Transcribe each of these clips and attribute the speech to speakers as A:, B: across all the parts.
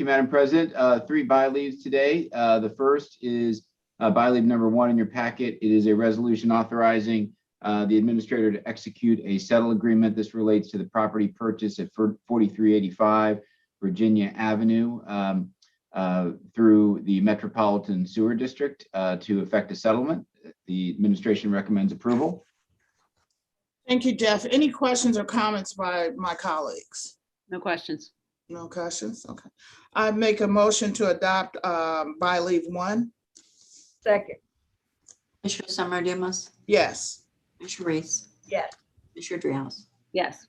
A: you, Madam President. Uh, Three by leaves today. Uh, The first is uh, by leave number one in your packet. It is a resolution authorizing uh, the administrator to execute a settle agreement. This relates to the property purchase at fir- 4385 Virginia Avenue um, uh, through the Metropolitan Sewer District uh, to effect a settlement. The administration recommends approval.
B: Thank you, Jeff. Any questions or comments by my colleagues?
C: No questions.
B: No questions? Okay. I make a motion to adopt um, by leave one.
D: Second,
E: Commissioner Summer Dumas,
B: Yes.
E: Commissioner Reese,
D: yes,
E: Commissioner Dreehouse.
C: Yes,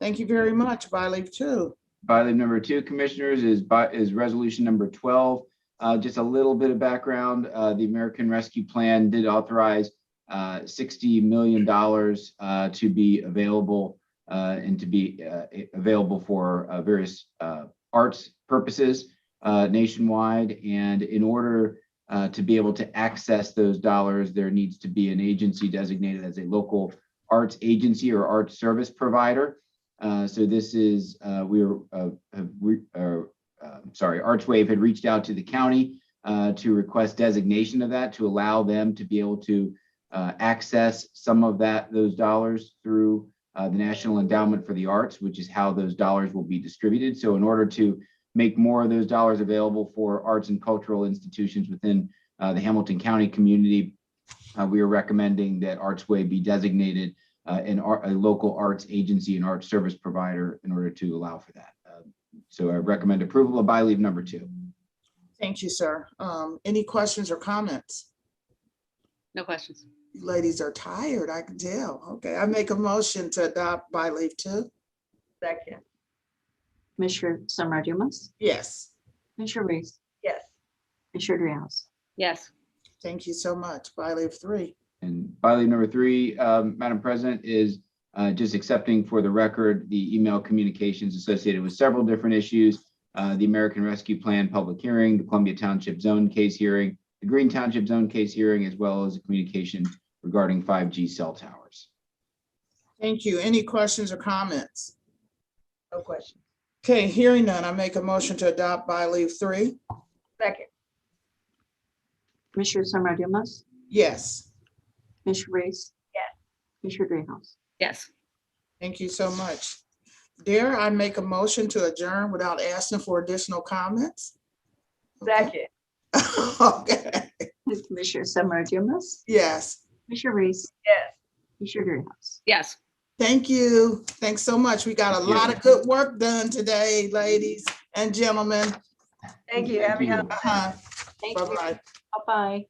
B: Thank you very much. By leave two.
A: By leave number two, commissioners, is by, is resolution number twelve. Uh, just a little bit of background, uh, the American Rescue Plan did authorize uh, sixty million dollars uh, to be available uh, and to be uh, a- available for uh, various uh, arts purposes uh, nationwide. And in order uh, to be able to access those dollars, there needs to be an agency designated as a local arts agency or arts service provider. Uh, so this is, uh, we are, uh, have re- uh, uh, sorry, Archwave had reached out to the county uh, to request designation of that to allow them to be able to uh, access some of that, those dollars through uh, the National Endowment for the Arts, which is how those dollars will be distributed. So in order to make more of those dollars available for arts and cultural institutions within uh, the Hamilton County community, uh, we are recommending that Archway be designated uh, an art, a local arts agency and art service provider in order to allow for that. Uh, So I recommend approval of by leave number two.
B: Thank you, sir. Um, Any questions or comments?
C: no questions.
B: You Ladies are tired, I can tell. Okay, I make a motion to adopt by leave two.
D: second,
E: Commissioner Summer Dumas,
B: Yes.
E: Commissioner Reese,
D: yes,
E: Commissioner Dreehouse.
C: Yes,
B: Thank you so much. By leave three.
A: And by leave number three, um, Madam President, is uh, just accepting for the record the email communications associated with several different issues. uh, The American Rescue Plan public hearing, the Columbia Township Zone case hearing, the Green Township Zone case hearing, as well as a communication regarding 5G cell towers.
B: Thank you. Any questions or comments?
D: no question,
B: Okay, hearing none, I make a motion to adopt by leave three.
D: second,
E: Commissioner Summer Dumas,
B: Yes.
E: Commissioner Reese.
D: Yes.
E: Commissioner Dreehouse.
C: yes,
B: Thank you so much. Dare I make a motion to adjourn without asking for additional comments?
D: second,
B: Okay,
E: Commissioner Summer Dumas,
B: yes.
E: Commissioner Reese,
D: yes.
E: Commissioner Dreehouse.
C: yes.
B: Thank you. Thanks so much. We got a
A: Thank you.
B: lot of good work done today, ladies and gentlemen.
D: Thank you,
A: Thank
D: Abby.
A: you.
B: Uh-huh.
E: Thank you.
B: Bye-bye.
E: Bye-bye.